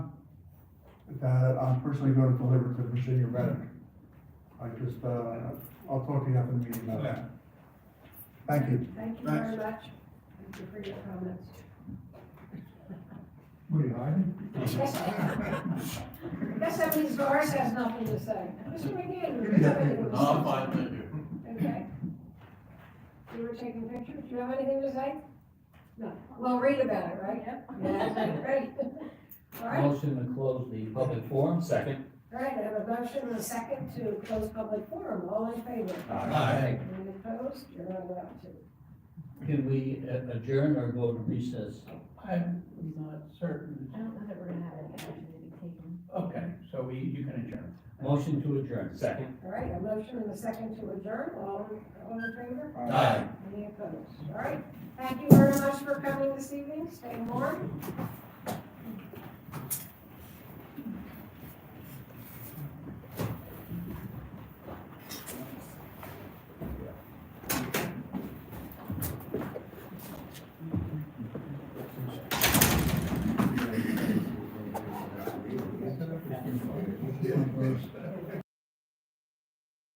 that I'm personally going to deliver to Virginia Reddick. I just, uh, I'll talk to you after the meeting about that. Thank you. Thank you very much. Thank you for your comments. What are you hiding? SME Doris has nothing to say. Mr. McGinn, do you have anything No, to I'm say? fine, thank you. Okay. You were taking pictures. Do you have anything to say? No. Well, read about it, right? Yeah, great. All right, all Motion to close the public forum, second. right, I have a motion and a second to close public forum. All in favor? Aye. Any opposed? You're not allowed to. Can we uh, adjourn or go to recess? I'm not certain. I don't know that we're gonna have any action to be taken. Okay, so we, you can adjourn. Motion to adjourn, second. All right, a motion and a second to adjourn. All, all in favor? Aye. Any opposed? All right, thank you very much for coming this evening, stay warm,